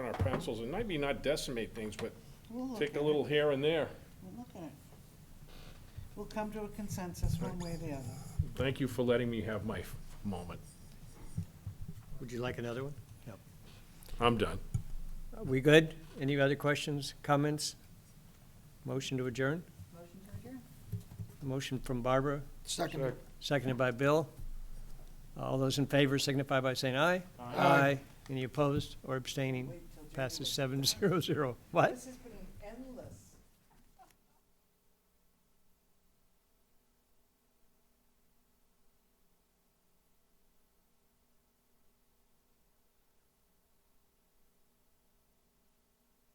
pencils and maybe not decimate things, but take a little here and there. We'll look at it. We'll come to a consensus one way or the other. Thank you for letting me have my f- moment. Would you like another one? I'm done. Are we good? Any other questions, comments? Motion to adjourn? Motion from Barbara, Second. seconded by Bill. All those in favor signify by saying aye. Aye. Any opposed or abstaining? Wait till January. Passes seven zero zero. What? This has been